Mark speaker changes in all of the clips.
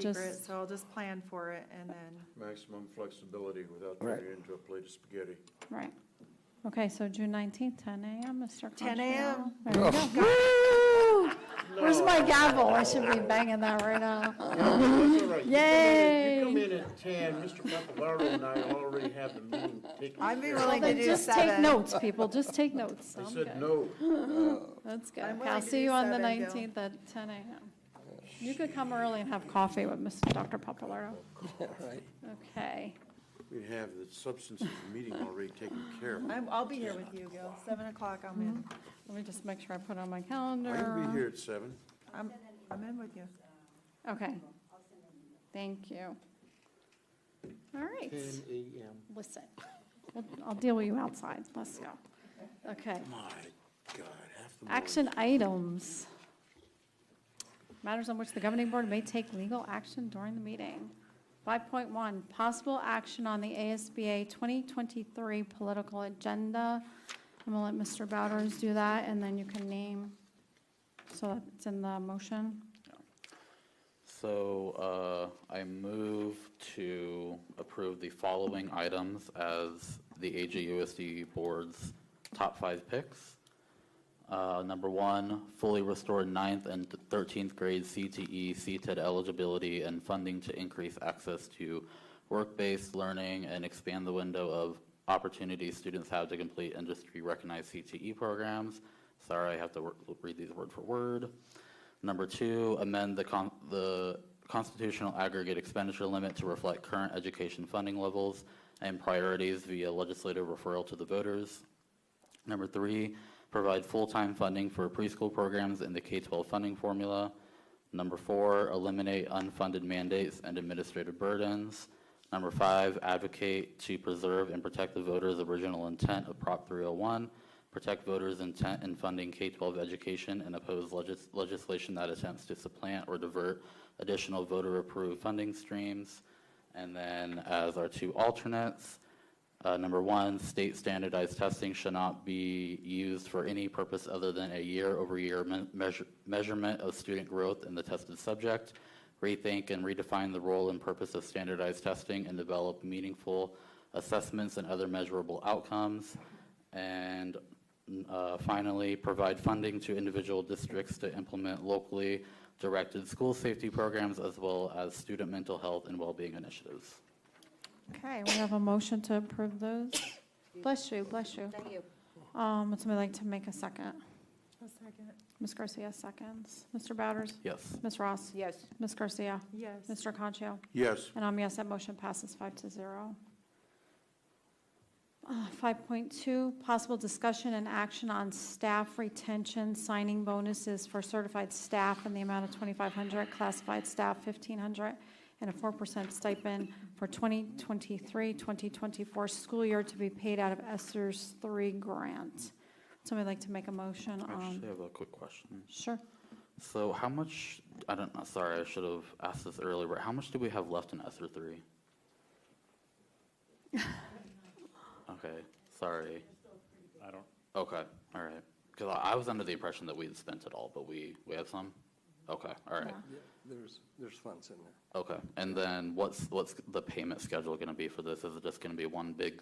Speaker 1: secret,
Speaker 2: Just-
Speaker 1: so I'll just plan for it and then.
Speaker 3: Maximum flexibility without
Speaker 4: Right.
Speaker 3: turning it into a plate of spaghetti.
Speaker 2: Right. Okay, so June nineteenth, ten AM, Mr.
Speaker 1: 10
Speaker 2: Conchal.
Speaker 1: a.m..
Speaker 2: There you go. Woo! Where's my gavel? I should be banging that right now.
Speaker 5: That's all right. You come in- You come
Speaker 2: Yay.
Speaker 5: in at ten, Mr. Papalardo and I already have the meeting taken
Speaker 1: I'd be
Speaker 5: care of.
Speaker 1: willing to
Speaker 2: Then
Speaker 1: do
Speaker 2: just take
Speaker 1: seven.
Speaker 2: notes, people, just take notes.
Speaker 3: I
Speaker 2: I'm good.
Speaker 3: said no.
Speaker 2: That's good.
Speaker 1: I'm
Speaker 2: Okay,
Speaker 1: willing
Speaker 2: I'll
Speaker 1: to
Speaker 2: see
Speaker 1: do
Speaker 2: you on the
Speaker 1: seven, Bill.
Speaker 2: nineteenth at ten AM. You could come early and have coffee with Mr. Dr. Papalardo.
Speaker 4: right.
Speaker 2: Okay.
Speaker 3: We have the substance of the meeting already taken care of.
Speaker 1: I'm, I'll be here with you, Gil. Seven o'clock, I'm in.
Speaker 2: Let me just make sure I put it on my
Speaker 3: I can be
Speaker 2: calendar.
Speaker 3: here at seven.
Speaker 1: I'm, I'm in with you.
Speaker 2: Okay. Thank you. All right.
Speaker 5: Ten AM.
Speaker 2: Listen, we'll- I'll deal with you outside. Let's go. Okay.
Speaker 3: My God, half the morning.
Speaker 2: Action items. Matters on which the governing board may take legal action during the meeting. 5.1, possible action on the ASBA 2023 political agenda. I'm going to let Mr. Bowers do that, and then you can name, so that it's in the motion.
Speaker 6: So uh, I move to approve the following items as the AGUSD Board's top five picks. Uh, Number one, fully restore ninth and 13th grade E, CTE, CTED eligibility and funding to increase access to work-based learning and expand the window of opportunities students have to complete industry-recognized CTE programs. Sorry, I have to wor- read these word for word. Number two, amend the con, the constitutional aggregate expenditure limit to reflect current education funding levels and priorities via legislative referral to the voters. Number three, provide full-time funding for preschool programs in the K-12 funding formula. Number four, eliminate unfunded mandates and administrative burdens. Number five, advocate to preserve and protect the voters' original intent of Prop 301, protect voters' intent in funding K-12 education, and oppose legis- legislation that attempts to supplant or divert additional voter-approved funding streams. And then as our two alternates, uh, Number one, state standardized testing should not be used for any purpose other than a year-over-year me- measure- measurement of student growth in the tested subject. Rethink and redefine the role and purpose of standardized testing and develop meaningful assessments and other measurable outcomes. And uh, finally, provide funding to individual districts to implement locally directed school safety programs as well as student mental health and well-being initiatives.
Speaker 2: Okay, we have a motion to approve those. Bless you, bless you. Thank you. Um, would somebody like to make a second?
Speaker 1: A second.
Speaker 2: Ms. Garcia seconds. Mr. Bowders?
Speaker 6: Yes.
Speaker 2: Ms. Ross?
Speaker 7: Yes.
Speaker 2: Ms. Garcia?
Speaker 1: Yes.
Speaker 2: Mr. Concho?
Speaker 3: Yes,
Speaker 2: And I'm yes, that motion passes five to zero. Uh, 5.2, possible discussion and action on staff retention signing bonuses for certified staff in the amount of 2,500, classified staff 1,500, and a 4% stipend for 2023, 2024 school year to be paid out of ESSER's 3 grant. Somebody like to make a motion
Speaker 6: I actually
Speaker 2: on?
Speaker 6: have a quick question.
Speaker 2: Sure.
Speaker 6: So how much, I don't know, sorry, I should have asked this earlier, but how much do we have left in ESER three? Okay, sorry.
Speaker 8: I don't,
Speaker 6: Okay, all right. Because I, I was under the impression that we had spent it all, but we, we have some? Okay, all right,
Speaker 2: Yeah.
Speaker 4: There's, there's funds in there.
Speaker 6: okay. And then what's, what's the payment schedule going to be for this? Is it just going to be one big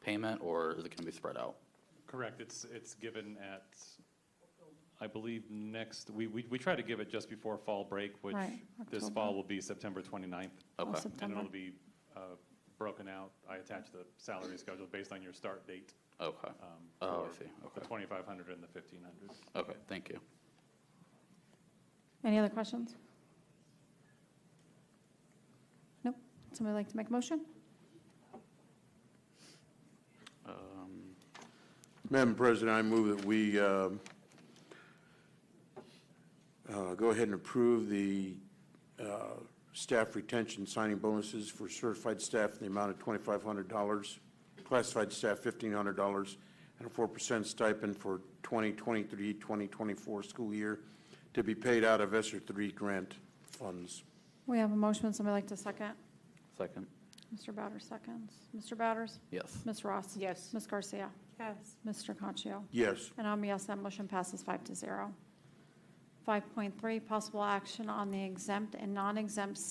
Speaker 6: payment or is it going to be spread out?
Speaker 8: correct, it's, it's given at, I believe, next, we, we, we try to give it just before fall break, which
Speaker 2: Right,
Speaker 8: this
Speaker 2: October.
Speaker 8: fall will be September 29th.
Speaker 2: Oh,
Speaker 6: Okay.
Speaker 8: And
Speaker 2: September.
Speaker 8: it'll be uh, broken out, I attach the salary schedule based on your start date.
Speaker 6: Okay,
Speaker 8: um,
Speaker 6: Oh, I
Speaker 8: for
Speaker 6: see.
Speaker 8: The
Speaker 6: Okay.
Speaker 8: 2,500 and the 1,500.
Speaker 6: okay, thank you.
Speaker 2: Any other questions? Nope. Somebody like to make a motion?
Speaker 6: Um,
Speaker 3: Madam President, I move that we um, uh, go ahead and approve the uh, staff retention signing bonuses for certified staff in the amount of $2,500, classified staff $1,500, and a 4% stipend for 2023, 2024 school year to be paid out of ESSER III grant funds.
Speaker 2: We have a motion. Would somebody like to second?
Speaker 6: Second,
Speaker 2: Mr. Bowders seconds. Mr. Bowders?
Speaker 6: yes.
Speaker 2: Ms. Ross?
Speaker 7: Yes.
Speaker 2: Ms. Garcia?
Speaker 1: Yes.
Speaker 2: Mr. Concho?
Speaker 3: Yes,
Speaker 2: And I'm a yes, that motion passes five to zero. 5.3, possible action on the exempt and non-exempt